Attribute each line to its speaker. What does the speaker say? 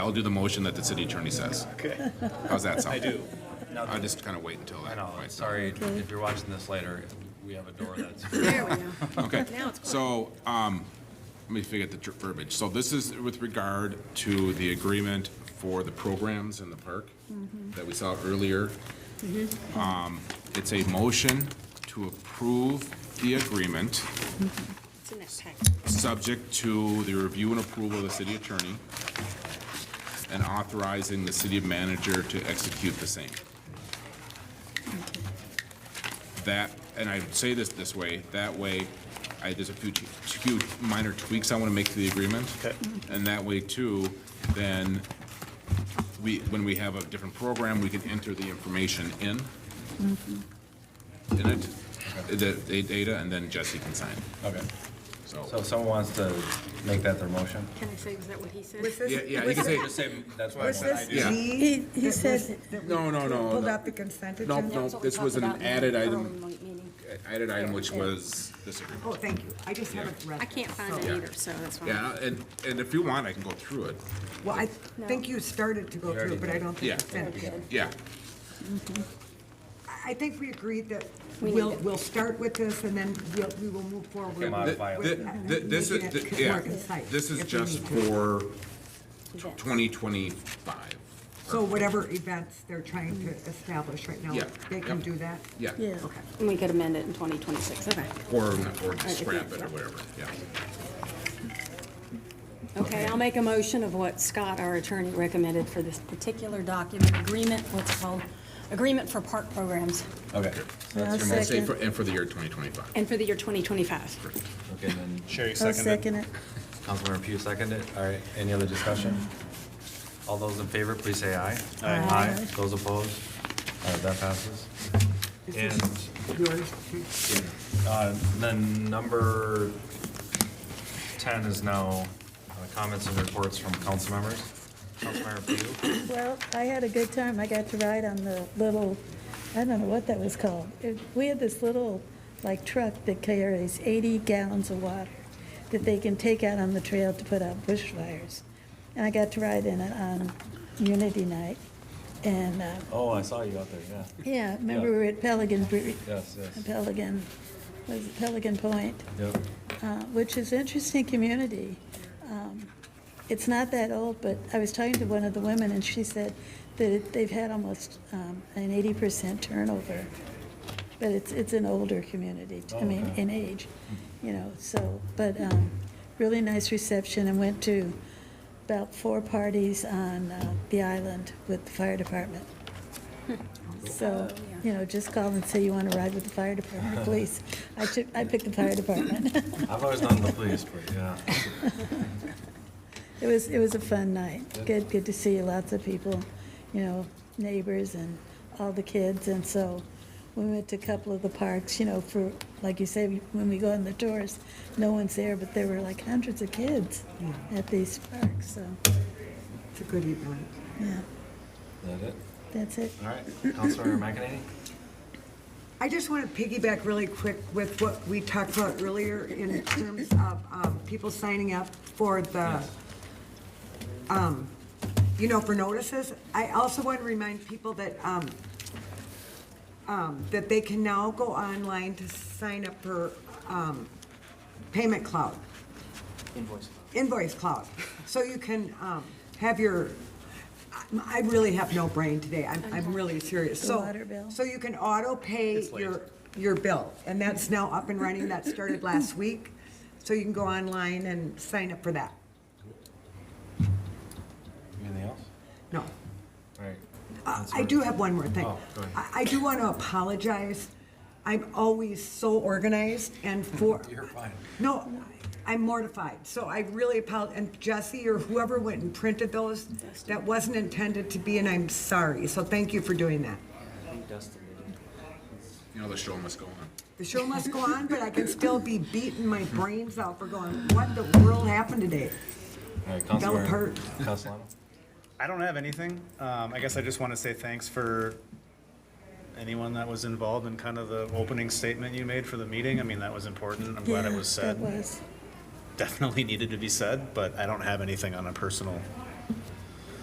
Speaker 1: I'll do the motion that the city attorney says.
Speaker 2: Okay.
Speaker 1: How's that sound?
Speaker 2: I do. Now,
Speaker 1: I just kind of wait until
Speaker 2: I
Speaker 1: that.
Speaker 2: know,
Speaker 1: point's done.
Speaker 2: sorry, if you're watching this later, we have a door that's.
Speaker 3: There we go.
Speaker 1: Okay.
Speaker 3: Now it's clear.
Speaker 1: So, um, let me figure out the ter- verbiage. So this is with regard to the agreement for the programs in the park that we saw earlier. Um, it's a motion to approve the agreement,
Speaker 3: It's in that pack.
Speaker 1: subject to the review and approval of the city attorney, and authorizing the city manager to execute the same. that, and I say this this way, that way, I, there's a few, t- few minor tweaks I want to make to the agreement.
Speaker 2: Okay.
Speaker 1: And that way too, then we, when we have a different program, we can enter the information in, in it, the, the data, and then Jesse can sign,
Speaker 2: Okay. So
Speaker 1: so.
Speaker 2: if someone wants to make that their motion?
Speaker 3: Can I say, is that what he said?
Speaker 4: Was this-
Speaker 1: Yeah, yeah, you can say,
Speaker 2: Just say, that's what I
Speaker 4: Was
Speaker 2: want.
Speaker 4: this
Speaker 2: I
Speaker 1: Yeah.
Speaker 4: G?
Speaker 5: He, he said,
Speaker 1: No, no, no,
Speaker 4: Pulled
Speaker 1: no.
Speaker 4: out the consent
Speaker 1: Nope,
Speaker 4: agenda?
Speaker 1: nope.
Speaker 3: That's what we
Speaker 1: this was
Speaker 3: talked
Speaker 1: an
Speaker 3: about in the
Speaker 1: added item.
Speaker 3: early mo- meeting.
Speaker 1: added item which was this agreement.
Speaker 4: Oh, thank you. I just haven't read it.
Speaker 3: I can't find
Speaker 4: so-
Speaker 3: it either, so that's why.
Speaker 1: Yeah, and, and if you want, I can go through it,
Speaker 4: Well, I
Speaker 3: No.
Speaker 4: think you started to go through it, but I don't
Speaker 1: yeah,
Speaker 4: think you finished it.
Speaker 1: yeah,
Speaker 4: I I think we agreed that
Speaker 3: We
Speaker 4: we'll,
Speaker 3: need it.
Speaker 4: we'll start with this and then we'll, we will move forward.
Speaker 2: Come on.
Speaker 4: with-
Speaker 1: Th- th-
Speaker 4: with
Speaker 1: th- This is,
Speaker 4: making it
Speaker 1: th- yeah,
Speaker 4: more concise
Speaker 1: this is
Speaker 4: if we
Speaker 1: just
Speaker 4: need to.
Speaker 1: for
Speaker 3: Events.
Speaker 1: 2025.
Speaker 4: So whatever events they're trying to establish right now,
Speaker 1: Yeah,
Speaker 4: they can
Speaker 1: yep.
Speaker 4: do that?
Speaker 1: Yeah,
Speaker 5: yeah,
Speaker 4: Okay.
Speaker 3: And we could amend it in 2026, okay.
Speaker 1: or, or just scrap it or whatever, yeah.
Speaker 3: Okay, I'll make a motion of what Scott, our attorney, recommended for this particular document, agreement, what's it called? Agreement for park programs,
Speaker 2: Okay. So that's your
Speaker 5: I'll
Speaker 1: And
Speaker 2: motion.
Speaker 1: say
Speaker 5: Second.
Speaker 1: for, and for the year 2025.
Speaker 3: and for the year 2025.
Speaker 2: Okay, then
Speaker 6: Sherry
Speaker 5: I'll
Speaker 6: seconded.
Speaker 5: second it.
Speaker 2: Councilmember Pugh seconded. All right, any other discussion? All those in favor, please say aye.
Speaker 6: Aye.
Speaker 2: Aye. Those opposed? All right, that passes.
Speaker 4: This
Speaker 2: And
Speaker 4: is yours. too.
Speaker 2: Uh, Then number 10 is now uh, comments and reports from council members. Councilmember Pugh?
Speaker 5: Well, I had a good time. I got to ride on the little, I don't know what that was called. It- We had this little, like, truck that carries 80 gallons of water that they can take out on the trail to put out bushfires. And I got to ride in it on Unity Night. And, uh,
Speaker 2: Oh, I saw you out there, yeah.
Speaker 5: yeah, remember we were at Pelican, Bre-
Speaker 2: Yes, yes.
Speaker 5: Pelican, was it Pelican Point?
Speaker 2: Yep.
Speaker 5: uh, which is interesting community. Um, It's not that old, but I was talking to one of the women, and she said that it- they've had almost um, an eighty percent turnover. But it's, it's an older community, I mean,
Speaker 2: Okay.
Speaker 5: in age, you know, so, but um, really nice reception, and went to about four parties on uh, the island with the fire department. So, you know, just call and say you want to ride with the fire department, please. I took, I picked the fire department.
Speaker 2: I've always known the police, but yeah.
Speaker 5: It was, it was a fun night. Good, good to see lots of people, you know, neighbors and all the kids. And so we went to a couple of the parks, you know, for, like you say, when we go on the tours, no one's there, but there were like hundreds of kids at these parks, so,
Speaker 4: It's a good evening.
Speaker 5: yeah,
Speaker 2: Is that it?
Speaker 5: that's it.
Speaker 2: All right, Councilmember McEnany?
Speaker 4: I just want to piggyback really quick with what we talked about earlier in terms of um, people signing up for the, um, you know, for notices. I also want to remind people that, um, um, that they can now go online to sign up for um, Payment Cloud. Invoice Cloud. So you can um, have your, I- I really have no brain today. I'm, I'm really serious.
Speaker 5: The
Speaker 4: So-
Speaker 5: water bill.
Speaker 4: So you can auto-pay your, your bill, and that's now up and running. That started last week. So you can go online and sign up for that.
Speaker 2: Anything else?
Speaker 4: No.
Speaker 2: All right.
Speaker 4: Uh, I do have one more thing.
Speaker 2: Oh, go ahead.
Speaker 4: I, I do want to apologize. I'm always so organized and for.
Speaker 2: You're fine.
Speaker 4: No, I'm mortified. So I really apologize. And Jesse or whoever went and printed those, that wasn't intended to be, and I'm sorry. So thank you for doing that.
Speaker 1: You know, the show must go on.
Speaker 4: The show must go on, but I can still be beating my brains out for going, what the world happened today?
Speaker 2: All right, Councilmember.
Speaker 4: hurt.
Speaker 2: Castellano?
Speaker 6: I don't have anything. Um, I guess I just want to say thanks for anyone that was involved in kind of the opening statement you made for the meeting. I mean, that was important. I'm glad
Speaker 5: Yeah,
Speaker 6: it was said.
Speaker 5: That was,
Speaker 6: Definitely needed to be said, but I don't have anything on a personal